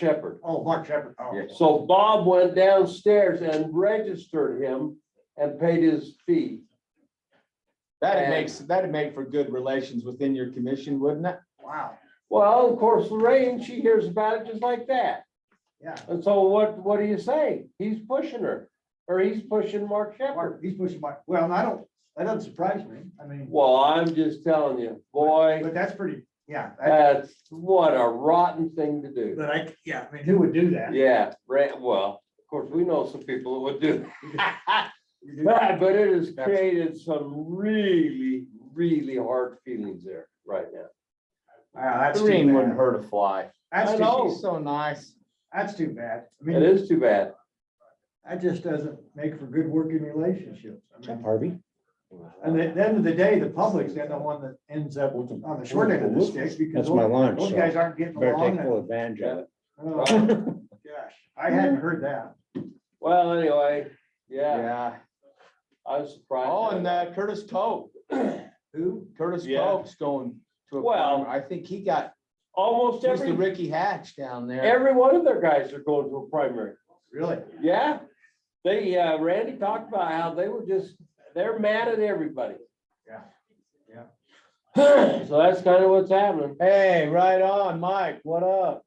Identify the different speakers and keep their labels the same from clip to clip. Speaker 1: Shepherd.
Speaker 2: Oh, Mark Shepherd. Oh.
Speaker 3: Yeah.
Speaker 1: So Bob went downstairs and registered him and paid his fee.
Speaker 3: That'd
Speaker 1: And-
Speaker 3: make, that'd make for good relations within your commission, wouldn't it?
Speaker 2: Wow,
Speaker 1: Well, of course, Lorraine, she hears about it just like that.
Speaker 2: yeah.
Speaker 1: And so what, what do you say? He's pushing her, or he's pushing Mark Shepherd.
Speaker 2: Mark, he's pushing Mark. Well, and I don't, that doesn't surprise me. I mean,
Speaker 1: Well, I'm just telling you, boy,
Speaker 2: but that's pretty, yeah. that-
Speaker 1: that's what a rotten thing to do.
Speaker 2: But I, yeah, I mean, who would do that?
Speaker 1: Yeah, right, well, of course, we know some people that would do. that. But but it has created some really, really hard feelings there right now.
Speaker 2: Wow, that's too
Speaker 3: Green wouldn't
Speaker 2: bad.
Speaker 3: hurt a fly.
Speaker 2: That's
Speaker 1: I
Speaker 2: too,
Speaker 1: know.
Speaker 3: She's so nice.
Speaker 2: that's too bad. I
Speaker 1: It
Speaker 2: mean,
Speaker 1: is too bad.
Speaker 2: that just doesn't make for good working relationships. I mean,
Speaker 4: Harvey?
Speaker 2: And at the end of the day, the public's the only one that ends up on the short end of the stick because
Speaker 4: That's my lunch,
Speaker 2: those
Speaker 4: so
Speaker 2: guys aren't getting
Speaker 4: better take full
Speaker 2: along.
Speaker 4: advantage of it.
Speaker 2: Oh, Gosh, I hadn't heard that.
Speaker 1: Well, anyway, yeah,
Speaker 3: Yeah.
Speaker 1: I was surprised.
Speaker 3: Oh, and uh, Curtis Pope,
Speaker 2: Who?
Speaker 3: Curtis
Speaker 1: Yeah.
Speaker 3: Pope's going to a
Speaker 1: Well-
Speaker 3: farm. I think he got,
Speaker 1: Almost
Speaker 3: he's the
Speaker 1: every,
Speaker 3: Ricky Hatch down there.
Speaker 1: every one of their guys are going to a primary.
Speaker 2: Really?
Speaker 1: Yeah, they, uh, Randy talked about how they were just, they're mad at everybody.
Speaker 2: Yeah. Yeah.
Speaker 1: So that's kind of what's happening.
Speaker 3: Hey, right on, Mike, what up?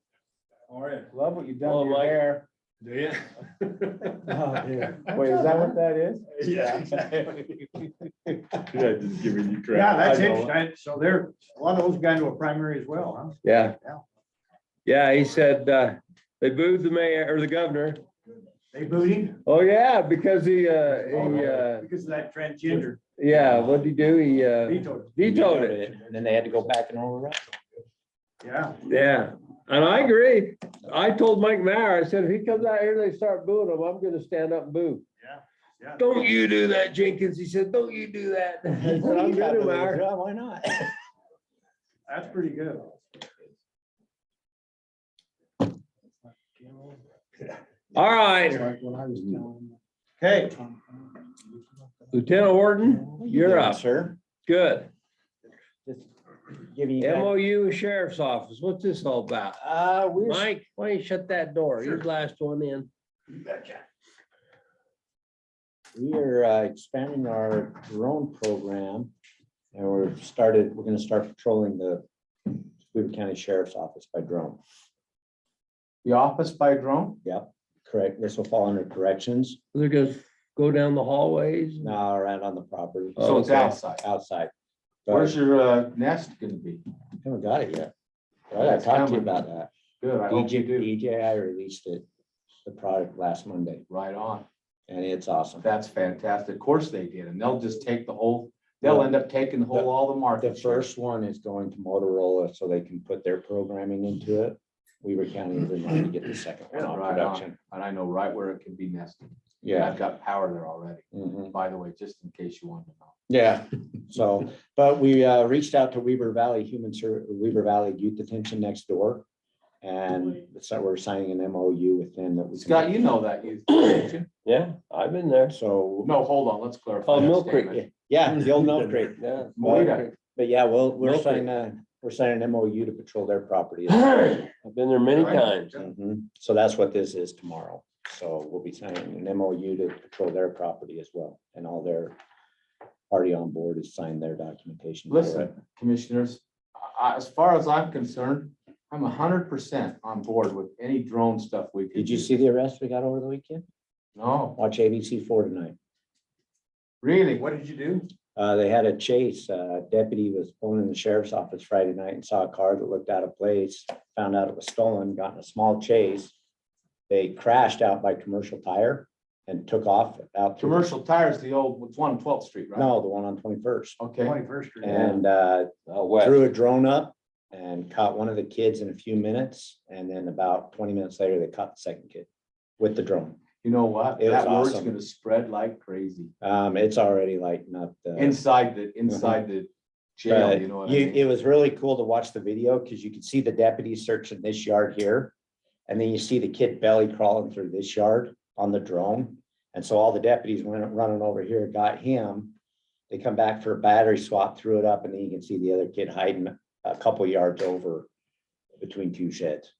Speaker 5: All right.
Speaker 3: Love what you've done
Speaker 1: Hello,
Speaker 3: to your
Speaker 1: Mike.
Speaker 3: hair.
Speaker 5: Do you?
Speaker 3: Wait, is that what that is?
Speaker 5: Yeah. Yeah, just giving you crap.
Speaker 2: Yeah, that's
Speaker 5: I know.
Speaker 2: interesting. I- So there, a lot of those guys were primary as well, huh?
Speaker 4: Yeah.
Speaker 2: Yeah.
Speaker 4: Yeah, he said, uh, they booed the mayor or the governor.
Speaker 2: They booed him
Speaker 4: Oh, yeah, because he, uh,
Speaker 3: Oh,
Speaker 4: he, uh,
Speaker 2: because of that transgender
Speaker 4: yeah, what'd he do? He, uh,
Speaker 2: veto.
Speaker 4: vetoed it.
Speaker 6: Then they had to go back and override.
Speaker 2: Yeah,
Speaker 4: Yeah, and I agree. I told Mike Mayer, I said, if he comes out here and they start booing him, I'm gonna stand up and boo.
Speaker 2: yeah.
Speaker 4: Don't you do that, Jenkins. He said, don't you do that. I said, I'm gonna, Mayor.
Speaker 6: Why not?
Speaker 2: That's pretty good.
Speaker 4: All right,
Speaker 3: Hey,
Speaker 4: Lieutenant Horton, you're up.
Speaker 6: Sir.
Speaker 4: Good.
Speaker 6: Just Giving you. guys-
Speaker 4: MOU with Sheriff's Office, what's this all about?
Speaker 6: Uh, we're
Speaker 4: Mike, why don't you shut that door? You're the last one in.
Speaker 6: We are uh, expanding our drone program and we're started, we're gonna start patrolling the Weaver County Sheriff's Office by drone.
Speaker 3: the office by drone?
Speaker 6: Correct, this will fall under corrections,
Speaker 4: They're gonna go down the hallways. Oh,
Speaker 6: now around on the property.
Speaker 3: So it's
Speaker 4: Okay.
Speaker 3: outside.
Speaker 6: Outside. Oh, But
Speaker 3: Where's your uh, nest gonna be?
Speaker 6: Haven't got it yet. I gotta talk to you about that. E
Speaker 3: Good, I hope you
Speaker 6: DJ,
Speaker 3: do.
Speaker 6: DJI released it, the product last Monday,
Speaker 3: Right on.
Speaker 6: and it's awesome.
Speaker 3: That's fantastic. Of course they did, and they'll just take the whole, they'll end up taking the whole, all the
Speaker 6: The
Speaker 3: market. share.
Speaker 6: first one is going to Motorola so they can put their programming into it. Weaver County is in line to get the second one on
Speaker 3: Right on.
Speaker 6: production.
Speaker 3: And I know right where it can be nested. And
Speaker 6: Yeah.
Speaker 3: I've got power there already,
Speaker 6: mhm.
Speaker 3: by the way, just in case you wanted to know.
Speaker 6: Yeah, so, but we uh, reached out to Weaver Valley Human Ser, Weaver Valley Youth Detention next door. And so we're signing an MOU with them that we. can-
Speaker 3: Scott, you know that youth convention.
Speaker 4: Yeah, I've been there.
Speaker 6: So,
Speaker 3: No, hold on, let's clarify.
Speaker 4: Oh,
Speaker 3: that
Speaker 4: Mill Creek,
Speaker 3: statement.
Speaker 6: yeah, you'll know, great.
Speaker 4: Yeah.
Speaker 3: Moita.
Speaker 6: But yeah, well, we're
Speaker 4: Milford.
Speaker 6: signing, a- we're signing an MOU to patrol their property.
Speaker 4: I've been there many
Speaker 2: Right.
Speaker 4: times.
Speaker 6: Mhm. So that's what this is tomorrow. So we'll be signing an MOU to patrol their property as well, and all their party on board has signed their documentation. for it.
Speaker 3: Listen, commissioners, I- I- as far as I'm concerned, I'm hundred percent on board with any drone stuff we could.
Speaker 6: Did you
Speaker 3: do.
Speaker 6: see the arrest we got over the weekend?
Speaker 3: No,
Speaker 6: Watch ABC four tonight.
Speaker 3: really?
Speaker 2: What did you do?
Speaker 6: Uh, they had a chase. Uh, deputy was pulling in the sheriff's office Friday night and saw a car that looked out of place, found out it was stolen, got in a small chase. They crashed out by commercial tire and took off out. through-
Speaker 3: Commercial tires, the old, it's one on 12th street, right?
Speaker 6: No, the one on twenty-first.
Speaker 3: Okay,
Speaker 2: Twenty-first Street.
Speaker 6: And, uh,
Speaker 4: Out west.
Speaker 6: threw a drone up and caught one of the kids in a few minutes. And then about twenty minutes later, they caught the second kid with the drone.
Speaker 3: you know what?
Speaker 6: It was
Speaker 3: That word's
Speaker 6: awesome.
Speaker 3: gonna spread like crazy
Speaker 6: Um, it's already like not the.
Speaker 3: inside the, inside the jail,
Speaker 6: But
Speaker 3: you know what I
Speaker 6: Uh-huh. you-
Speaker 3: mean?
Speaker 6: it was really cool to watch the video because you could see the deputies searching this yard here. And then you see the kid belly crawling through this yard on the drone. And so all the deputies went running over here, got him. They come back for a battery swap, threw it up, and then you can see the other kid hiding a couple yards over between two sheds.